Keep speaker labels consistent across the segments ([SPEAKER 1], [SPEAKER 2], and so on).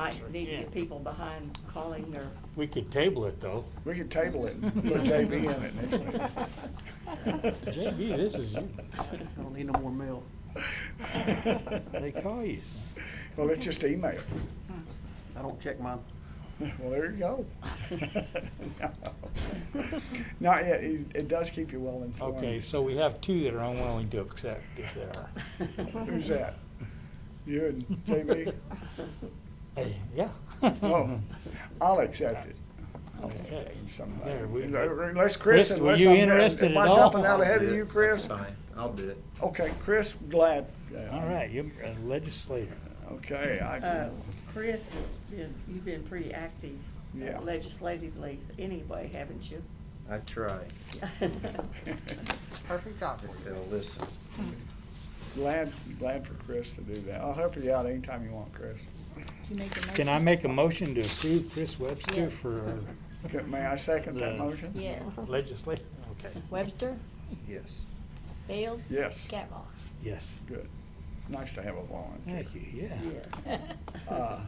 [SPEAKER 1] Right, need to
[SPEAKER 2] Yeah.
[SPEAKER 1] get people behind calling their.
[SPEAKER 3] We could table it, though.
[SPEAKER 4] We could table it and put JB in it next week.
[SPEAKER 3] JB, this is you.
[SPEAKER 1] uh,
[SPEAKER 5] I don't need no more mail.
[SPEAKER 3] They call you.
[SPEAKER 4] Well, it's just email.
[SPEAKER 5] I don't check mine.
[SPEAKER 4] Well, there you go. Not yet, it, it does keep you well informed.
[SPEAKER 3] Okay, so we have two that are unwilling to accept if they are.
[SPEAKER 4] Who's that? You and JB?
[SPEAKER 3] Hey, yeah.
[SPEAKER 4] Oh, I'll accept it.
[SPEAKER 3] Okay.
[SPEAKER 4] Somebody.
[SPEAKER 3] There, we-
[SPEAKER 4] Uh, Unless
[SPEAKER 3] Chris,
[SPEAKER 4] Chris,
[SPEAKER 3] were
[SPEAKER 4] unless
[SPEAKER 3] you
[SPEAKER 4] I'm,
[SPEAKER 3] interested
[SPEAKER 4] am I
[SPEAKER 3] at all?
[SPEAKER 4] jumping out ahead of you, Chris?
[SPEAKER 6] Fine, I'll do it.
[SPEAKER 4] Okay, Chris, glad. yeah,
[SPEAKER 3] All right, you're a legislator.
[SPEAKER 4] Okay, I
[SPEAKER 1] Uh,
[SPEAKER 4] can,
[SPEAKER 1] Chris, has been- you've been pretty active uh,
[SPEAKER 4] Yeah.
[SPEAKER 1] legislatively anyway, haven't you?
[SPEAKER 6] I try.
[SPEAKER 5] Perfect job.
[SPEAKER 6] They'll listen.
[SPEAKER 4] glad, glad for Chris to do that. I'll help you out anytime you want, Chris.
[SPEAKER 3] Can I make a motion to approve Chris Webster
[SPEAKER 7] Yes.
[SPEAKER 3] for
[SPEAKER 4] Okay, May I second that
[SPEAKER 3] Yes.
[SPEAKER 4] motion?
[SPEAKER 7] Yes.
[SPEAKER 3] legislator? Okay,
[SPEAKER 7] Webster,
[SPEAKER 6] Yes.
[SPEAKER 7] Bales?
[SPEAKER 4] Yes.
[SPEAKER 7] Cavall.
[SPEAKER 3] yes.
[SPEAKER 4] Nice to have a volunteer.
[SPEAKER 3] Thank you, yeah.
[SPEAKER 1] Yes.
[SPEAKER 4] Uh,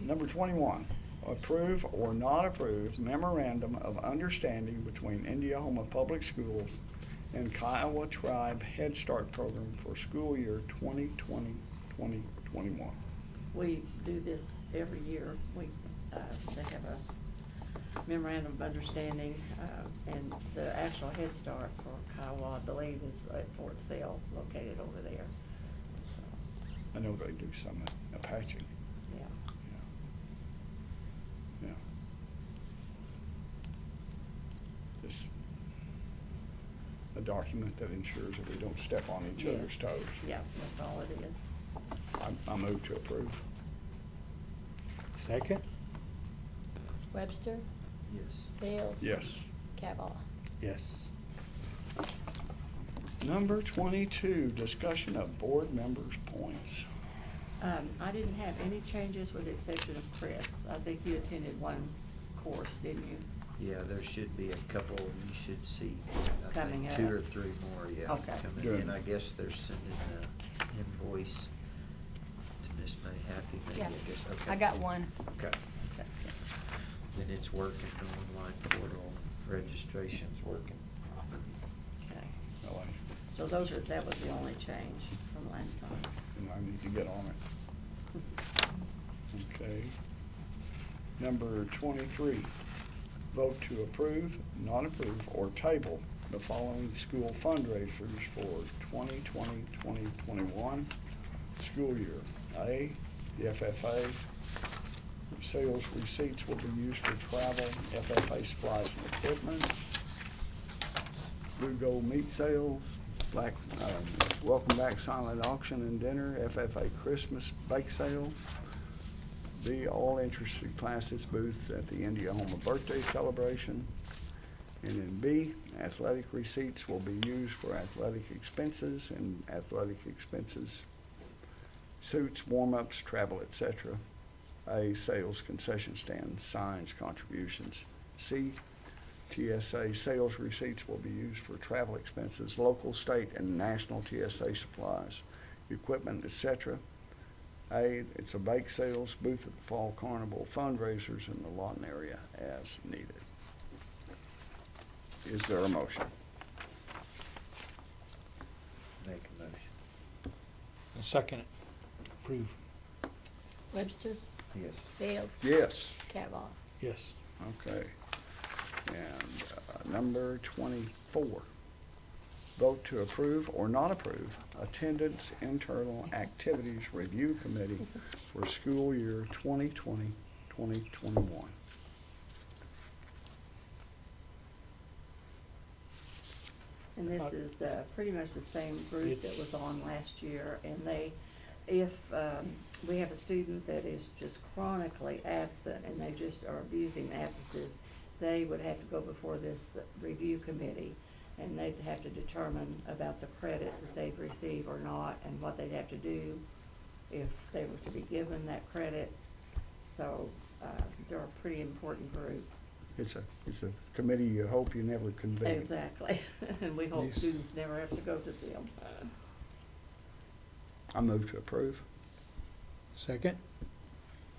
[SPEAKER 4] Number twenty-one, approve or not approve memorandum of understanding between Indiahoma Public Schools and Kiowa Tribe Head Start Program for school year 2020-2021.
[SPEAKER 1] We do this every year. We, uh, they have a memorandum of understanding, uh, and the actual Head Start for Kiowa, I believe, is at Fort Sill, located over there. So,
[SPEAKER 4] I know they do some Apache.
[SPEAKER 1] yeah.
[SPEAKER 4] Just a document that ensures that we don't step on each other's
[SPEAKER 1] Yes.
[SPEAKER 4] toes.
[SPEAKER 1] Yeah, that's all it is.
[SPEAKER 4] I, I move to approve.
[SPEAKER 3] Second?
[SPEAKER 7] Webster,
[SPEAKER 6] Yes.
[SPEAKER 7] Bales?
[SPEAKER 4] Yes.
[SPEAKER 7] Cavall.
[SPEAKER 3] Yes.
[SPEAKER 4] Number twenty-two, discussion of board members' points.
[SPEAKER 1] Um, I didn't have any changes with the exception of Chris. I think you attended one course, didn't you?
[SPEAKER 6] Yeah, there should be a couple you should see. I think
[SPEAKER 1] Coming up.
[SPEAKER 6] Two or three more, yeah.
[SPEAKER 1] Okay.
[SPEAKER 6] coming
[SPEAKER 4] Good.
[SPEAKER 6] in. I guess they're sending the invoice to Miss May Happy, maybe, I
[SPEAKER 7] Yeah.
[SPEAKER 6] guess, okay.
[SPEAKER 7] I got one.
[SPEAKER 6] Okay. Then it's working, the online portal, registration's working.
[SPEAKER 1] Okay.
[SPEAKER 4] Oh, I-
[SPEAKER 1] So those are, that was the only change from last time.
[SPEAKER 4] and I need to get on it. Okay. Number twenty-three, vote to approve, not approve, or table the following school fundraisers for 2020-2021 school year. A, the FFA, sales receipts will be used for travel, FFA supplies and equipment, Blue Gold Meat Sales, Black, um, Welcome Back Silent Auction and Dinner, FFA Christmas Bake Sale, the All Interested Classes booths at the Indiana Birthday Celebration, and then B, athletic receipts will be used for athletic expenses and athletic expenses, suits, warm-ups, travel, et cetera. A, sales concession stand, signs, contributions. C, TSA sales receipts will be used for travel expenses, local, state, and national TSA supplies, equipment, et cetera. A, it's a bake sales booth at the Fall Carnival fundraisers in the Lawton area as needed. Is there a motion?
[SPEAKER 6] Make a motion.
[SPEAKER 3] Second, approve,
[SPEAKER 7] Webster,
[SPEAKER 6] Yes.
[SPEAKER 7] Bales?
[SPEAKER 4] Yes.
[SPEAKER 7] Cavall.
[SPEAKER 3] yes.
[SPEAKER 4] Okay. And uh, number twenty-four, vote to approve or not approve attendance internal activities review committee for school year 2020-2021.
[SPEAKER 1] And this is uh, pretty much the same group that was on last year, and they, if um, we have a student that is just chronically absent and they just are abusing absences, they would have to go before this review committee, and they'd have to determine about the credit that they'd receive or not, and what they'd have to do if they were to be given that credit. So uh, they're a pretty important group.
[SPEAKER 4] It's a, it's a committee you hope you never convene.
[SPEAKER 1] Exactly, and we hope
[SPEAKER 4] Yes.
[SPEAKER 1] students never have to go to them.
[SPEAKER 4] I move to approve.
[SPEAKER 3] Second?